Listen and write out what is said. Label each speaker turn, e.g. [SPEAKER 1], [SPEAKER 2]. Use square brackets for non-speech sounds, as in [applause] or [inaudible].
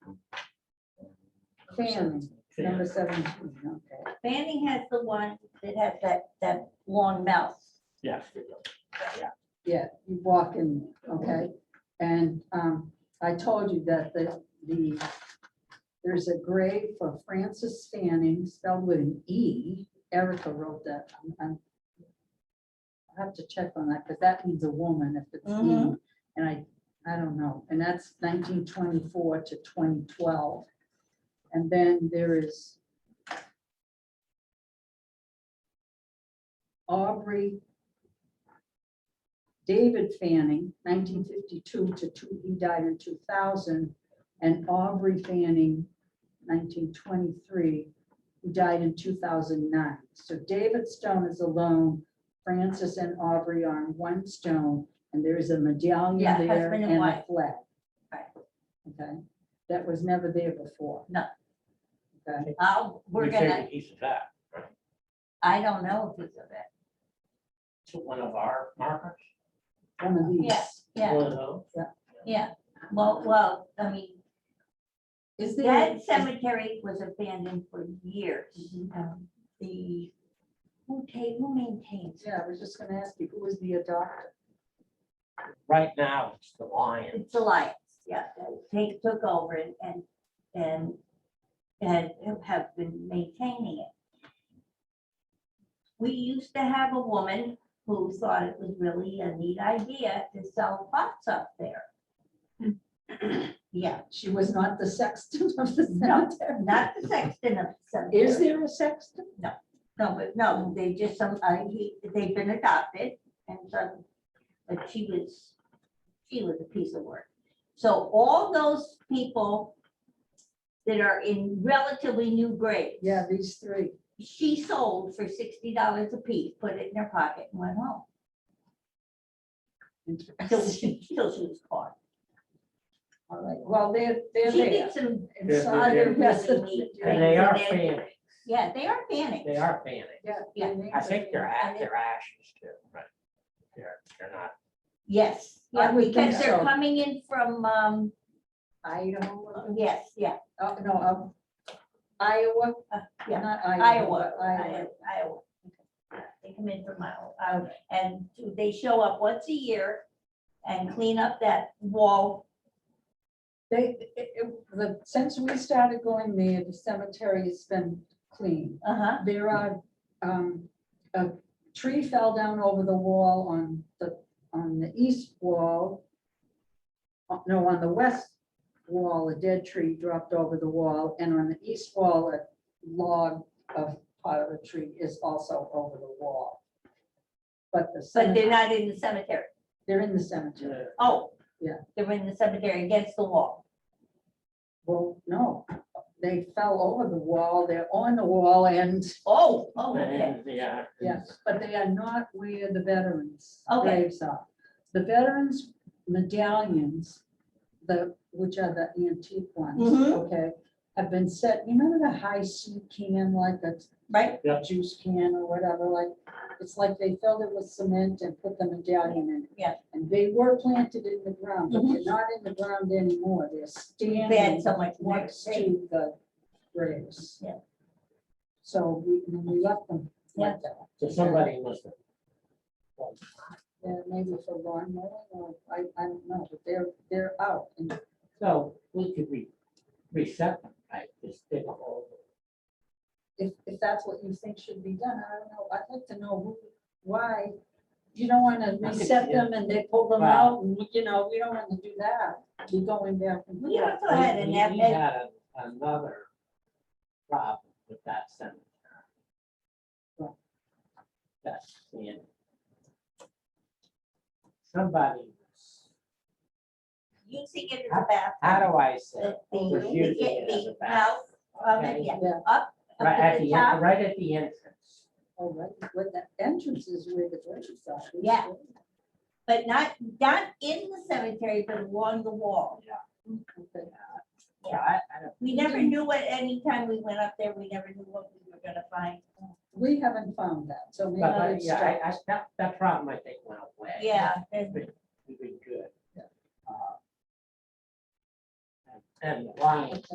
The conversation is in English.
[SPEAKER 1] Fanning,
[SPEAKER 2] Fanning.
[SPEAKER 1] number seventeen, okay.
[SPEAKER 3] Fanning has the one that has that, that long mouth.
[SPEAKER 2] Yeah.
[SPEAKER 1] Yeah, you walk in, okay? And um, I told you that the, the, there's a grave for Francis Fanning spelled with an E. Erica wrote that. I'm- I'm- I have to check on that because that means a woman if it's E.
[SPEAKER 3] Mhm.
[SPEAKER 1] And I, I don't know. And that's nineteen twenty-four to twenty twelve. And then there is Aubrey David Fanning, nineteen fifty-two to two, he died in two thousand, and Aubrey Fanning, nineteen twenty-three, who died in two thousand nine. So David Stone is alone, Francis and Aubrey are on one stone, and there is a
[SPEAKER 3] Yeah,
[SPEAKER 1] medallion there
[SPEAKER 3] husband
[SPEAKER 1] and
[SPEAKER 3] and
[SPEAKER 1] a
[SPEAKER 3] wife.
[SPEAKER 1] flag.
[SPEAKER 3] Right.
[SPEAKER 1] Okay, that was never there before.
[SPEAKER 3] No.
[SPEAKER 1] Okay,
[SPEAKER 3] Uh, we're
[SPEAKER 2] We take
[SPEAKER 3] gonna,
[SPEAKER 2] a piece of that,
[SPEAKER 3] I don't know if it's of it.
[SPEAKER 2] to one of our markers,
[SPEAKER 1] one of these.
[SPEAKER 3] Yeah, Yeah,
[SPEAKER 2] one of those.
[SPEAKER 3] yeah. Well, well, I mean,
[SPEAKER 1] Is there?
[SPEAKER 3] that cemetery was abandoned for years.
[SPEAKER 1] Mhm.
[SPEAKER 3] Um, The, who ta, who maintains? it?
[SPEAKER 1] Yeah, I was just gonna ask you, who was the adopter?
[SPEAKER 2] Right now, it's the Lions.
[SPEAKER 3] It's Alliance, yeah. They took over and, and, and and have been maintaining it. We used to have a woman who thought it was really a neat idea to sell pots up there. Yeah,
[SPEAKER 1] She was not the sexton of the
[SPEAKER 3] No.
[SPEAKER 1] cemetery.
[SPEAKER 3] not the sexton of some.
[SPEAKER 1] Is there a sexton?
[SPEAKER 3] No, but no, they just some, uh, he, they've been adopted and some, but she was, she was a piece of work. So all those people that are in relatively new grades.
[SPEAKER 1] Yeah, these three.
[SPEAKER 3] She sold for sixty dollars a piece, put it in her pocket and went home. Till
[SPEAKER 1] Interesting.
[SPEAKER 3] she, till she was caught.
[SPEAKER 1] [laughs] All right, well, they're, they're
[SPEAKER 3] She
[SPEAKER 1] there.
[SPEAKER 3] did some
[SPEAKER 1] And
[SPEAKER 2] Yes,
[SPEAKER 1] so-
[SPEAKER 2] they're
[SPEAKER 3] other
[SPEAKER 1] Yes, [laughs]
[SPEAKER 3] really neat things.
[SPEAKER 2] And they are
[SPEAKER 3] and they-
[SPEAKER 2] Fanning,
[SPEAKER 3] Yeah, they are Fanning.
[SPEAKER 2] they are Fanning.
[SPEAKER 1] yeah,
[SPEAKER 3] Yeah,
[SPEAKER 1] and
[SPEAKER 2] I think they're,
[SPEAKER 3] And
[SPEAKER 2] a-
[SPEAKER 3] they-
[SPEAKER 2] they're ashes too, right? They're, they're not,
[SPEAKER 3] Yes,
[SPEAKER 1] I
[SPEAKER 3] yeah,
[SPEAKER 1] would think
[SPEAKER 3] because they're
[SPEAKER 1] so.
[SPEAKER 3] coming in from, um,
[SPEAKER 1] Idaho,
[SPEAKER 3] yes, yeah,
[SPEAKER 1] uh, no, um, Iowa,
[SPEAKER 3] Uh, yeah,
[SPEAKER 1] not Idaho,
[SPEAKER 3] Iowa,
[SPEAKER 1] but Iowa.
[SPEAKER 3] Iowa. Iowa. They come in from Iowa, um, and they show up once a year and clean up that wall.
[SPEAKER 1] They, it- it- the, since we started going there, the cemetery has been clean.
[SPEAKER 3] Uh-huh,
[SPEAKER 1] There are, um, a tree fell down over the wall on the, on the east wall. Uh, No, on the west wall, a dead tree dropped over the wall, and on the east wall, a log of part of a tree is also over the wall. But the.
[SPEAKER 3] but they're
[SPEAKER 1] cemetery-
[SPEAKER 3] not in the cemetery.
[SPEAKER 1] They're in the cemetery.
[SPEAKER 3] Oh.
[SPEAKER 1] Yeah.
[SPEAKER 3] They're in the cemetery against the wall.
[SPEAKER 1] Well, no, they fell over the wall, they're on the wall and,
[SPEAKER 3] Oh, oh, okay.
[SPEAKER 2] And, yeah.
[SPEAKER 1] yes, but they are not where the veterans
[SPEAKER 3] Okay.
[SPEAKER 1] graves are. The veterans medallions, the, which are the antique ones,
[SPEAKER 3] Mhm.
[SPEAKER 1] okay, have been set, you remember the high sea can, like a
[SPEAKER 3] Right,
[SPEAKER 1] juice can or whatever, like, it's like they filled it with cement and put the medallion in. it.
[SPEAKER 3] Yeah.
[SPEAKER 1] And they were planted in the ground, but they're not in the ground anymore, they're standing
[SPEAKER 3] they had so much more
[SPEAKER 1] next
[SPEAKER 3] space.
[SPEAKER 1] to the graves.
[SPEAKER 3] Yeah.
[SPEAKER 1] So we, and we left them like that,
[SPEAKER 2] So somebody must have. well,
[SPEAKER 1] Yeah, maybe for lawn mowing, or I, I don't know, but they're, they're out. and
[SPEAKER 2] So we could re, reset them, right? Just dig a hole.
[SPEAKER 1] If, if that's what you think should be done, I don't know, I'd like to know who, why. You don't wanna
[SPEAKER 2] could
[SPEAKER 1] reset
[SPEAKER 2] see it.
[SPEAKER 1] them and they pull them
[SPEAKER 2] Wow.
[SPEAKER 1] out, and, you know, we don't wanna do that, be going back and.
[SPEAKER 3] We
[SPEAKER 1] forth.
[SPEAKER 3] also had
[SPEAKER 2] We-
[SPEAKER 3] an
[SPEAKER 2] we- We
[SPEAKER 3] epic,
[SPEAKER 2] had a- another problem with that cemetery.
[SPEAKER 1] What?
[SPEAKER 2] That's in. Somebody, was-
[SPEAKER 3] using it as a bath.
[SPEAKER 2] how do I say?
[SPEAKER 3] The, the,
[SPEAKER 2] was using it as
[SPEAKER 3] the
[SPEAKER 2] a
[SPEAKER 3] mouth
[SPEAKER 2] bathroom,
[SPEAKER 3] of it,
[SPEAKER 2] okay?
[SPEAKER 3] yeah,
[SPEAKER 1] Yeah,
[SPEAKER 3] up
[SPEAKER 2] Right at
[SPEAKER 3] to the
[SPEAKER 2] the,
[SPEAKER 3] top.
[SPEAKER 2] en- right at the entrance.
[SPEAKER 1] all right, but the entrance is where the graves are.
[SPEAKER 3] Yeah. But not, not in the cemetery, but along the wall.
[SPEAKER 1] Okay.
[SPEAKER 2] Yeah, I, I don't,
[SPEAKER 3] We never knew what, anytime we went up there, we never knew what we were gonna find.
[SPEAKER 1] We haven't found that, so maybe.
[SPEAKER 2] but, but,
[SPEAKER 1] it's
[SPEAKER 2] yeah,
[SPEAKER 1] stuck.
[SPEAKER 2] I, I, that, that problem, I think, went away.
[SPEAKER 3] Yeah, and
[SPEAKER 2] We've been good.
[SPEAKER 1] Yeah.
[SPEAKER 2] Uh, And and the Lions